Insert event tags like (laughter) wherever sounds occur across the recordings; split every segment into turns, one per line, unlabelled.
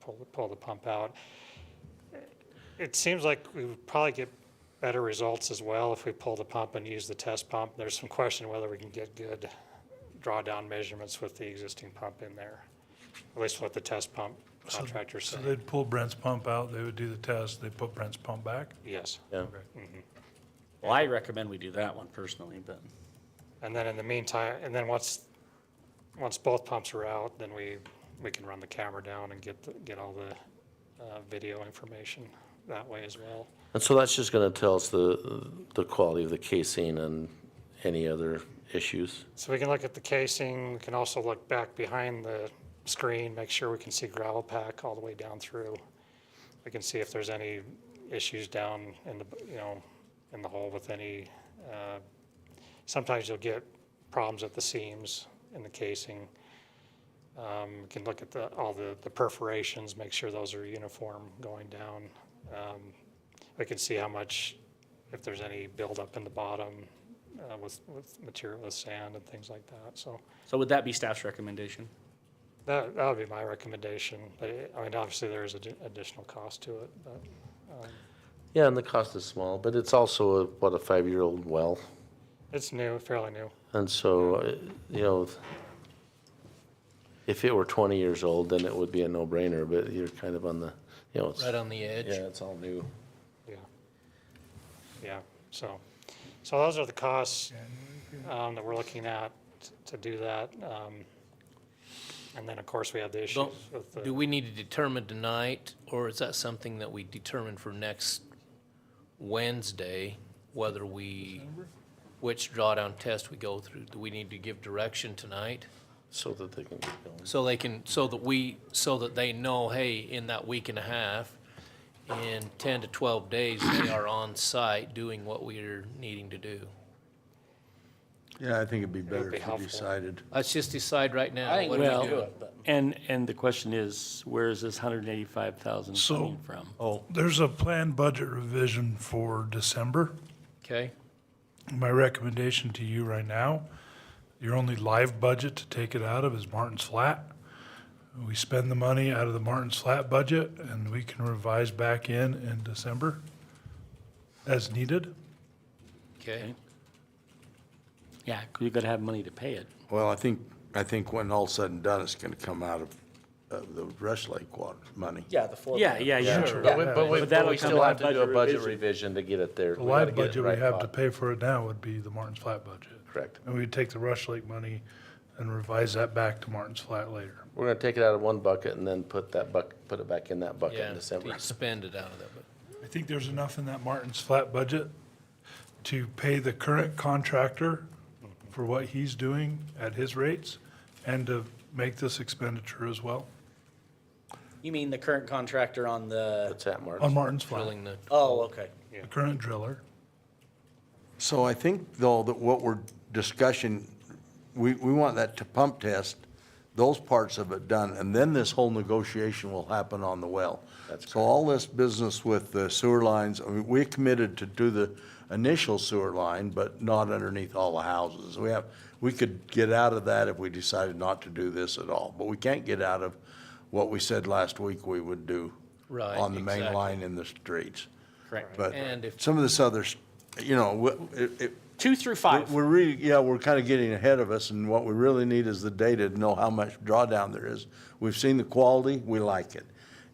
pull, pull the pump out. It seems like we would probably get better results as well if we pull the pump and use the test pump. There's some question whether we can get good drawdown measurements with the existing pump in there, at least what the test pump
So-
contractor
So
said.
they'd pull Brent's pump out, they would do the test, they put Brent's pump back?
Yes.
Yeah. Mm-hmm. Well, I recommend we do that one personally, but
And then in the meantime, and then once, once both pumps are out, then we, we can run the camera down and get, the- get all the uh, video information that way as well.
And so that's just going to tell us the, the quality of the casing and any other issues?
So we can look at the casing, we can also look back behind the screen, make sure we can see gravel pack all the way down through. We can see if there's any issues down in the, you know, in the hole with any, uh, sometimes you'll get problems at the seams in the casing. Um, we can look at the, all the, the perforations, make sure those are uniform going down. Um, we can see how much, if there's any buildup in the bottom, uh, with, with material, with sand and things like that, so
so would that be staff's recommendation?
that, that would be my recommendation, but it- I mean, obviously there is addi- additional cost to it, but, um,
Yeah, and the cost is small, but it's also, a- what, a five-year-old well?
it's new, fairly new.
And so, uh, you know, if it were 20 years old, then it would be a no-brainer, but you're kind of on the, you know, it's,
right on the edge.
yeah, it's all new.
Yeah. Yeah, so, so those are the costs um, that we're looking at t- to do that. um, And then, of course, we have the issues
Don't-
with the,
Do we need to determine tonight, or is that something that we determine for next Wednesday, whether we, which drawdown test we go through? Do we need to give direction tonight?
So that they can get going.
So they can, so that we, so that they know, hey, in that week and a half, in ten to twelve days,
(coughs)
they are on site doing what we are needing to do.
Yeah, I think it'd be better
be
if you
helpful.
decided.
Let's just decide right now.
I think
what
we
do
should
do?
do it, but.
And, and the question is, where is this hundred and eighty-five thousand
So-
coming from?
Oh,
There's a planned budget revision for December.
Okay,
My recommendation to you right now, your only live budget to take it out of is Martin's Flat. We spend the money out of the Martin's Flat budget and we can revise back in in December as needed.
okay.
Yeah, 'cause you gotta have money to pay it.
well, I think, I think when all's said and done, it's gonna come out of, of the Rush Lake water money.
Yeah, the floor.
Yeah, yeah, yeah.
But we- but we-
But
But
that'll
we
come
still
out
have to do a
budget
budget
revision.
revision to get it there.
The
We gotta
live
get it
budget we
right
have to
spot.
pay for it now would be the Martin's Flat budget.
Correct.
And we'd take the Rush Lake money and revise that back to Martin's Flat later.
We're going to take it out of one bucket and then put that buck, put it back in that bucket
Yeah,
in December.
to Spend it out of that, but.
I think there's enough in that Martin's Flat budget to pay the current contractor for what he's doing at his rates and to make this expenditure as well
You mean the current contractor on the,
That's at Martin's.
on Martin's Flat,
drilling the,
oh, okay.
the current driller.
So I think though that what we're discussing, we, we want that to pump test, those parts of it done, and then this whole negotiation will happen on the well.
That's
So all this business with the sewer lines, I mean, we're committed to do the initial sewer line, but not underneath all the houses. We have, we could get out of that if we decided not to do this at all, but we can't get out of what we said last week we would do
Right,
on the main
exactly.
line in the streets.
Correct.
But
And if-
some of this other, s- you know, wh- it, it,
Two through
we're-
five.
We're really, yeah, we're kind of getting ahead of us, and what we really need is the data to know how much drawdown there is. We've seen the quality, we like it.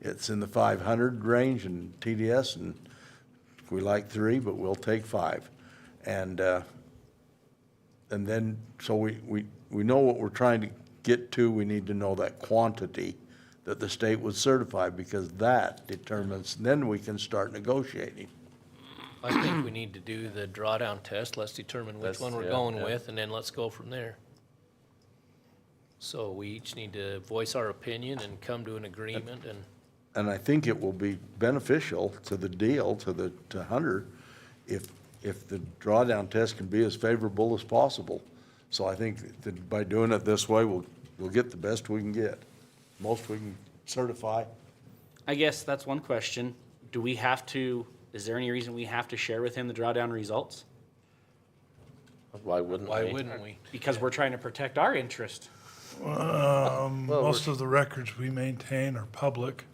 It's in the five hundred range in TDS, and we like three, but we'll take five. And, uh, and then, so we, we, we know what we're trying to get to, we need to know that quantity that the state would certify, because that determines, then we can start negotiating.
I think we need to do the drawdown test, let's determine which
That's-
one we're
yeah,
going
yeah.
with, and then let's go from there. So we each need to voice our opinion and come to an agreement, and
And I think it will be beneficial to the deal, to the, to Hunter, if, if the drawdown test can be as favorable as possible. So I think that by doing it this way, we'll, we'll get the best we can get, most we can certify.
I guess that's one question. Do we have to, is there any reason we have to share with him the drawdown results?
Why wouldn't
why
we?
wouldn't we?
Because we're trying to protect our interest.
Um, most of the records we maintain are public.